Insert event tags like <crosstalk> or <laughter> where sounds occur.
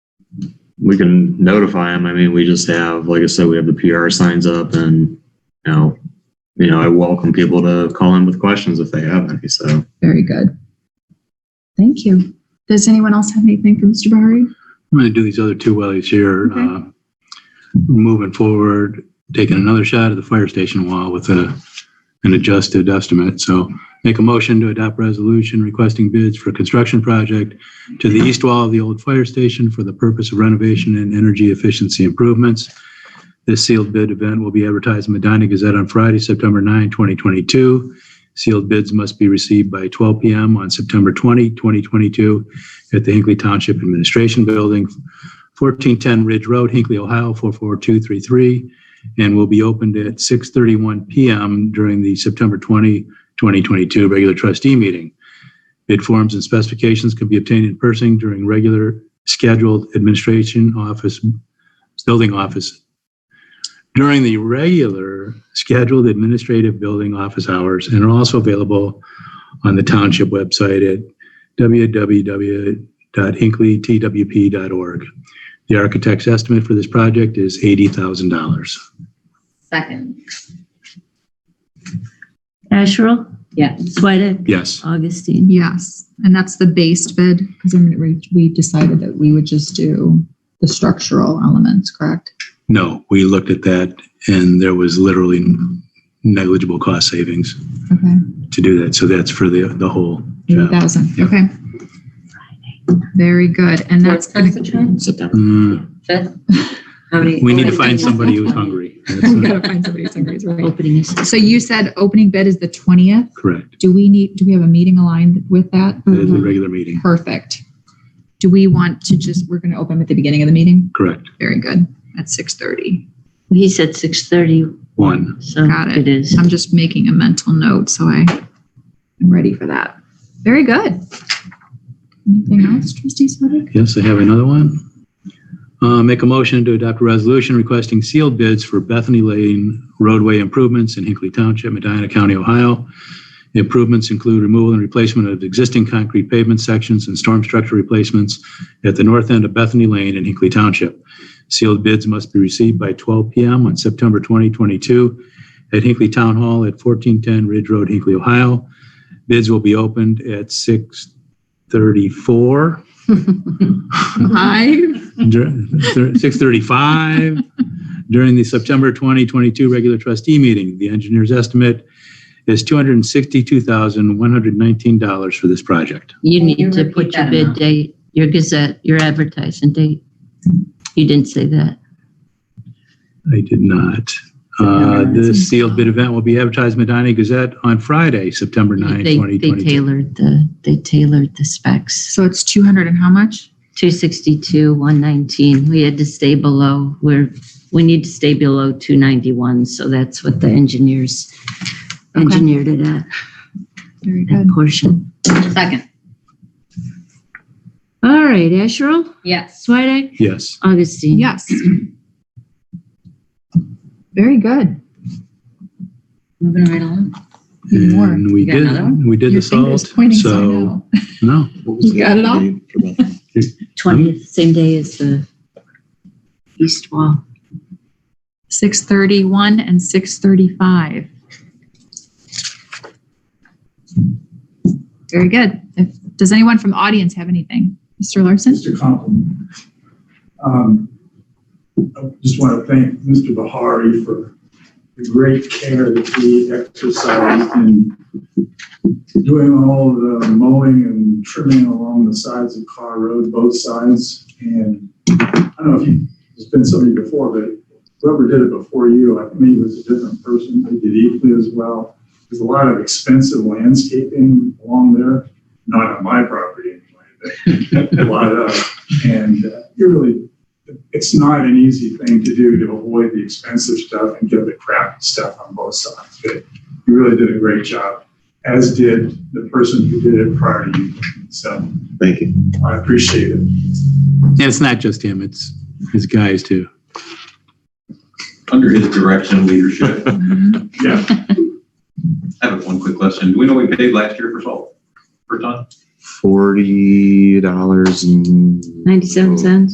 we can notify them. I mean, we just have, like I said, we have the PR signs up and, you know, you know, I welcome people to call in with questions if they have any, so. Very good. Thank you. Does anyone else have anything for Mr. Bahari? I'm going to do these other two while he's here. Okay. Uh, Moving forward, taking another shot at the fire station wall with a, an adjusted estimate. So make a motion to adopt resolution requesting bids for construction project to the east wall of the old fire station for the purpose of renovation and energy efficiency improvements. This sealed bid event will be advertised in Medina Gazette on Friday, September 9, 2022. Sealed bids must be received by 12 PM on September 20, 2022 at the Hinkley Township Administration Building, 1410 Ridge Road, Hinkley, Ohio, 44233, and will be opened at 6:31 PM during the September 20, 2022 regular trustee meeting. Bid forms and specifications can be obtained in person during regular scheduled administration office, building office, during the regular scheduled administrative building office hours, and are also available on the township website at www.hinkleytwp.org. The architect's estimate for this project is $80,000. Second. Asherle? Yes. Swedek? Yes. Augustine? Yes, and that's the based bid because I mean, we- we decided that we would just do the structural elements, correct? No, we looked at that and there was literally negligible cost savings Okay, to do that. So that's for the, the whole eighty job. thousand, Yeah. okay. Very good, and that's What's gonna, the time? September. Mm, Fifth? How many? We need to find somebody <laughs> who's hungry. That's we not <laughs> gotta find somebody who's hungry, it's right. Opening is So you said opening bid is the twentieth. correct. Do we need, do we have a meeting aligned with that? Mm-hmm. That is a regular meeting. Perfect. Do we want to just, we're gonna open at the beginning of the meeting? Correct. Very good, at six thirty. He said six thirty, One. so Got it. it is. I'm just making a mental note, so I am ready for that. Very good. Anything else, trustee Swedick? Yes, I have another one. Uh, Make a motion to adopt a resolution requesting sealed bids for Bethany Lane roadway improvements in Hinkley Township, Medina County, Ohio. The Improvements include removal and replacement of existing concrete pavement sections and storm structure replacements at the north end of Bethany Lane in Hinkley Township. Sealed bids must be received by 12 PM on September 2022 at Hinkley Town Hall at 1410 Ridge Road, Hinkley, Ohio. Bids will be opened at 6:34 Five. six thirty-five during the September twenty twenty-two regular trustee meeting. The engineer's estimate is two hundred and sixty-two thousand, one hundred and nineteen dollars for this project. You Can you need to repeat put your that bid amount? date, your Gazette, your advertising date. You didn't say that. I did not. Uh, the sealed bid event will be advertised in Medina Gazette on Friday, September nine, They, twenty they twenty-two. tailored the, they tailored the specs. So it's two hundred and how much? Two sixty-two, one nineteen. We had to stay below, we're, we need to stay below two ninety-one, so that's what the engineers Okay. engineered it at, Very that good. portion. Second. All right, Asherle? Yes. Swedek? Yes. Augustine? Yes. Very good. Moving right along. Need more. And we You got another did, one? we did Your the finger's salt. pointing, so I So, know. no, You got it all? Twentieth, same day as the east wall. Six thirty-one and six thirty-five. Very good. If- Does anyone from the audience have anything? Mr. Larson? Just a compliment. Um, I just want to thank Mr. Bahari for the great care that he exercised in doing all the mowing and trimming along the sides of Carr Road, both sides. And I don't know if you, there's been somebody before, but whoever did it before you, I think it was a different person, they did equally as well. There's a lot of expensive landscaping along there, not on my property anyway, but a lot of, and uh, you really, it's not an easy thing to do to avoid the expensive stuff and get the crappy stuff on both sides. But you really did a great job, as did the person who did it prior to you. So Thank you. I appreciate it. and it's not just him, it's his guys too. under his direction and leadership. Yeah, I have one quick question. Do we know we paid last year for salt per ton? Forty dollars and. Ninety-seven cents?